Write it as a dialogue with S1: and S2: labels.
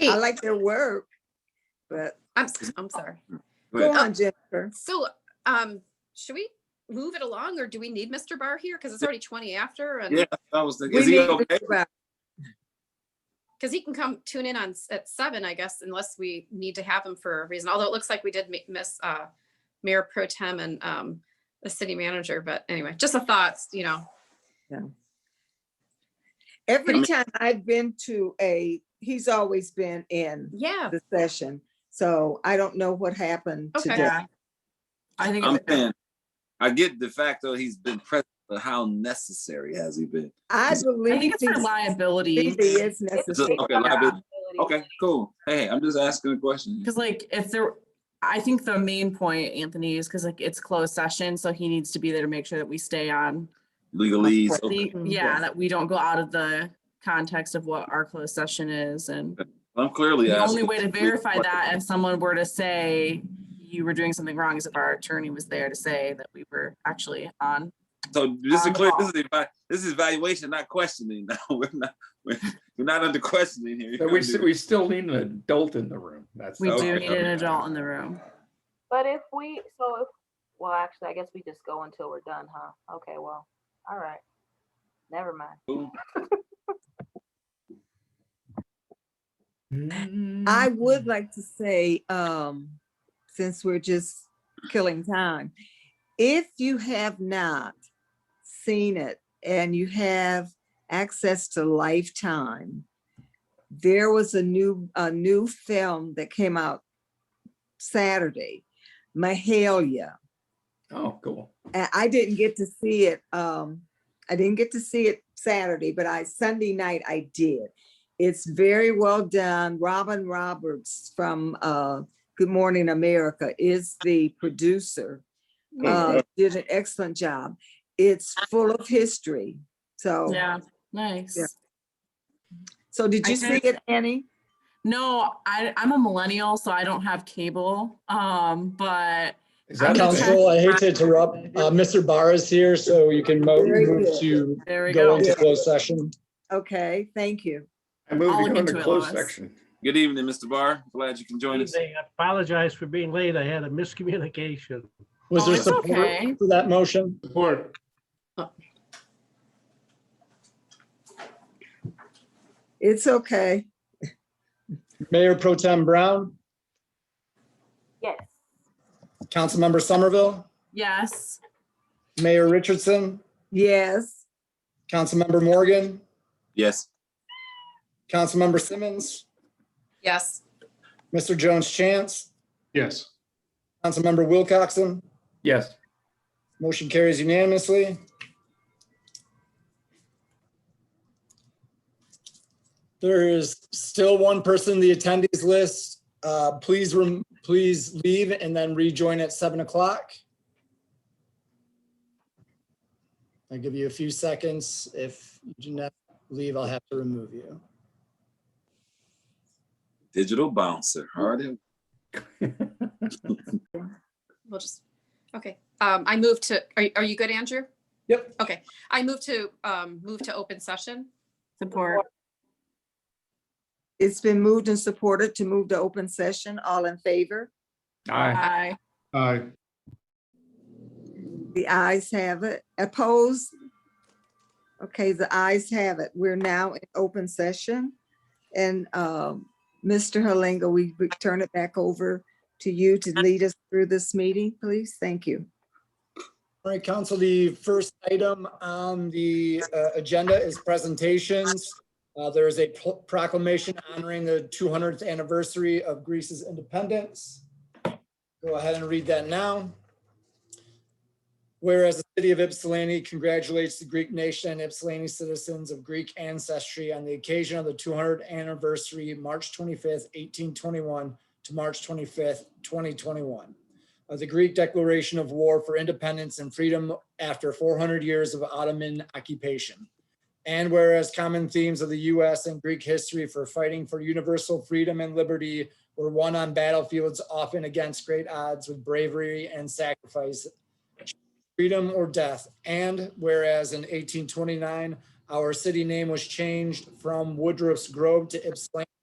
S1: I like their work, but
S2: I'm, s- I'm sorry.
S1: go
S2: ahead.
S1: on, Jennifer.
S2: So, um, should we move it along or do we need Mr. Barr here? Because it's already twenty after and,
S3: Yeah, I was thinking,
S1: We
S3: is he
S1: need to
S3: okay?
S1: think about-
S2: because he can come tune in on, s- at seven, I guess, unless we need to have him for a reason. Although it looks like we did mi- miss, uh, Mayor Pro Tem and, um, the city manager, but anyway, just a thought, you know.
S1: Every time I've been to a, he's always been in
S2: Yeah,
S1: the session, so I don't know what happened
S2: Okay.
S1: today.
S4: I think,
S3: I'm
S4: it's-
S3: saying, I get de facto he's been present, but how necessary has he been?
S1: I
S4: I
S1: believe
S4: think it's
S1: he's-
S4: for liability.
S1: he is
S3: Is it-
S1: necessary.
S3: Okay, liability- okay, cool. Hey, I'm just asking a question.
S4: Because like if there, I think the main point, Anthony, is because like it's closed session, so he needs to be there to make sure that we stay on.
S3: Legalese, okay.
S4: the- Mm-hmm. Yeah, that we don't go out of the context of what our closed session is and
S3: I'm clearly
S4: the only
S3: asking.
S4: way to verify that if someone were to say you were doing something wrong is if our attorney was there to say that we were actually on.
S3: So just to
S4: on the
S3: clear,
S4: ball.
S3: this is, eva- this is evaluation, not questioning. No, we're not, we're we're not under questioning here.
S5: But we, s- we still need an adult in the room. That's.
S4: We
S5: that's
S4: do
S3: Okay.
S5: what
S4: need an
S5: I'm-
S4: adult in the room.
S6: But if we, so if, well, actually, I guess we just go until we're done, huh? Okay, well, all right. Never mind.
S1: I
S5: Mm-hmm. Mm.
S1: would like to say, um, since we're just killing time, if you have not seen it and you have access to Lifetime, there was a new, a new film that came out Saturday, Mahalia.
S5: Oh, cool.
S1: And I didn't get to see it, um, I didn't get to see it Saturday, but I, Sunday night I did. It's very well done. Robin Roberts from, uh, Good Morning America is the producer.
S4: Mm-hmm. Um,
S1: Uh, did an excellent job. It's full of history. So,
S4: Oh. Yeah, nice.
S1: so did
S4: I
S1: you see
S4: think-
S1: it, Annie?
S4: No, I, I'm a millennial, so I don't have cable. Um, but
S5: Is
S4: I'm
S5: that
S4: gonna
S5: okay?
S4: check-
S7: Council, I hate to interrupt. Uh, Mr. Barr is here, so you can mo-
S1: Very
S7: move
S1: good.
S7: to
S4: there we
S7: go
S4: go.
S7: into closed session.
S1: Okay, thank you.
S5: I moved
S4: I'll
S5: to
S4: look
S5: go into
S4: into it,
S5: closed
S4: Lois.
S5: section.
S3: Good evening, Mr. Barr. Glad you can join us.
S8: evening. I apologize for being late. I had a miscommunication.
S7: Was
S4: Oh,
S7: there
S4: it's okay.
S7: support for that motion?
S5: Support.
S1: It's okay.
S7: Mayor Pro Tem Brown,
S6: Yes.
S7: Councilmember Somerville,
S4: Yes.
S7: Mayor Richardson,
S1: Yes,
S7: Councilmember Morgan,
S3: Yes,
S7: Councilmember Simmons,
S2: yes,
S7: Mr. Jones Chance,
S5: Yes.
S7: Councilmember Wilcoxen.
S5: Yes.
S7: Motion carries unanimously. There is still one person in the attendees list. Uh, Please, rem- please leave and then rejoin at 7 o'clock. I'll give you a few seconds. If you do not leave, I'll have to remove you.
S3: digital bouncer. Hard at
S2: we'll just, okay. Um, I move to, are, you- are you good, Andrew?
S5: Yep.
S2: Okay, I move to, um, move to open session.
S4: Support.
S1: it's been moved and supported to move to open session. All in favor?
S5: Aye.
S4: Aye.
S5: Aye.
S1: The ayes have it. Opposed? Okay, the ayes have it. We're now in open session. And um, Mr. Halinga, we we turn it back over to you to lead us through this meeting, please. Thank you.
S7: All right, council, the first item on the uh, agenda is presentations. Uh, There is a pro- proclamation honoring the 200th anniversary of Greece's independence. Go ahead and read that now. Whereas the city of Ypsilanti congratulates the Greek nation and Ypsilanti citizens of Greek ancestry on the occasion of the 200th anniversary, March 25th, 1821 to March 25th, 2021 of Uh, the Greek Declaration of War for Independence and Freedom after 400 years of Ottoman occupation. And whereas common themes of the US and Greek history for fighting for universal freedom and liberty were won on battlefields often against great odds with bravery and sacrifice, freedom or death. And whereas in 1829, our city name was changed from Woodruff's Grove to Ypsilanti